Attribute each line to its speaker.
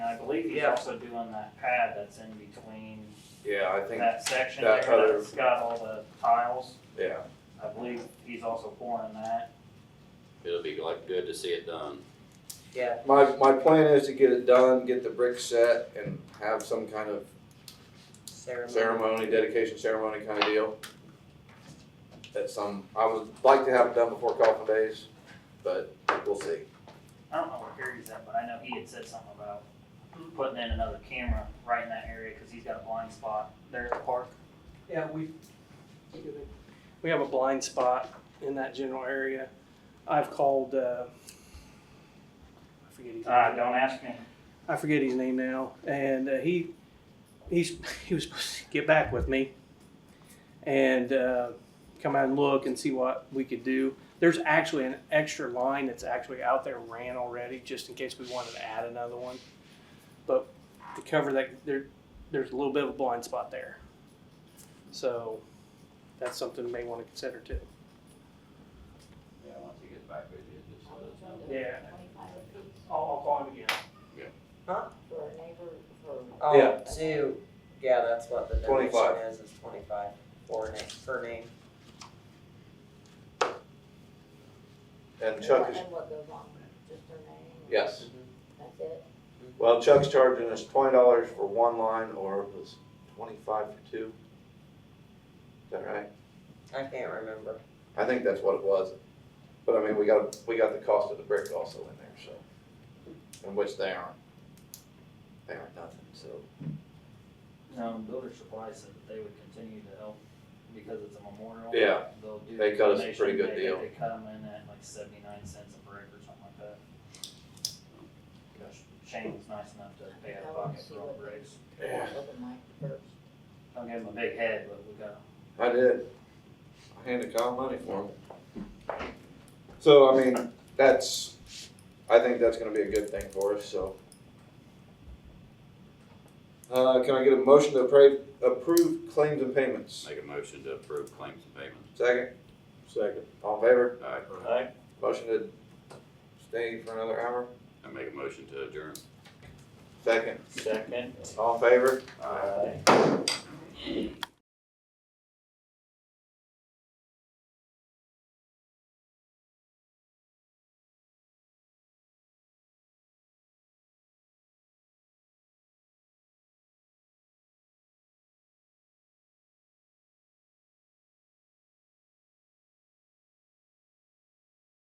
Speaker 1: he's
Speaker 2: Yeah.
Speaker 1: also doing that pad that's in between
Speaker 2: Yeah, I think,
Speaker 1: that section there
Speaker 2: that other-
Speaker 1: that's got all the tiles.
Speaker 2: yeah,
Speaker 1: I believe he's also pouring that.
Speaker 3: It'll be like good to see it done.
Speaker 2: my, my plan is to get it done, get the brick set and have some kind of
Speaker 4: Ceremony.
Speaker 2: ceremony, dedication ceremony kind of deal. At some, I would like to have it done before coffin days, but we'll see.
Speaker 1: I don't know where Harry's at, but I know he had said something about putting in another camera right in that area, cause he's got a blind spot there at the park.
Speaker 5: Yeah, we, we have a blind spot in that general area. I've called, uh, I forget his
Speaker 1: Uh,
Speaker 5: name.
Speaker 1: don't ask me.
Speaker 5: I forget his name now, and uh, he, he's, he was supposed to get back with me and, uh, come out and look and see what we could do. There's actually an extra line that's actually out there ran already, just in case we wanted to add another one. But to cover that, there, there's a little bit of a blind spot there. So that's something we may want to consider too.
Speaker 3: Yeah, once he gets back with you, just uh, let us know.
Speaker 5: Yeah.
Speaker 6: Twenty-five apiece
Speaker 5: I'll, I'll call him again.
Speaker 6: for a neighbor, for.
Speaker 4: Oh,
Speaker 2: Yeah.
Speaker 4: two. Yeah, that's what the donation
Speaker 2: 25.
Speaker 4: is, is twenty-five for name, per name.
Speaker 2: And Chuck is,
Speaker 6: And what goes on, just their name,
Speaker 2: yes,
Speaker 6: that's it.
Speaker 2: well, Chuck's charging us twenty dollars for one line or it was twenty-five for two. Is that right?
Speaker 4: I can't remember.
Speaker 2: I think that's what it was. But I mean, we got, we got the cost of the brick also in there, so, in which they aren't, they aren't nothing, so.
Speaker 1: Um, builder supplies said that they would continue to help because it's a memorial.
Speaker 2: Yeah.
Speaker 1: They'll do.
Speaker 2: They
Speaker 1: the
Speaker 2: cut us a
Speaker 1: donation.
Speaker 2: pretty good
Speaker 1: They-
Speaker 2: deal.
Speaker 1: They cut 'em in at like seventy-nine cents a brick or something like that. Gosh, Shane was nice enough to pay out of pocket for all the bricks.
Speaker 2: Yeah.
Speaker 6: Open mic first.
Speaker 1: Don't give him a big head, but we got
Speaker 2: I did. I handed Kyle money for him. So, I mean, that's, I think that's gonna be a good thing for us, so. Uh, can I get a motion to approve, approve claims and payments?
Speaker 3: Make a motion to approve claims and payments.
Speaker 2: Second? Second. All in favor?
Speaker 3: All right,
Speaker 2: Motion to stay for another hour?
Speaker 3: I make a motion to adjourn.
Speaker 2: Second?
Speaker 1: Second.
Speaker 2: All in favor?
Speaker 1: Aye.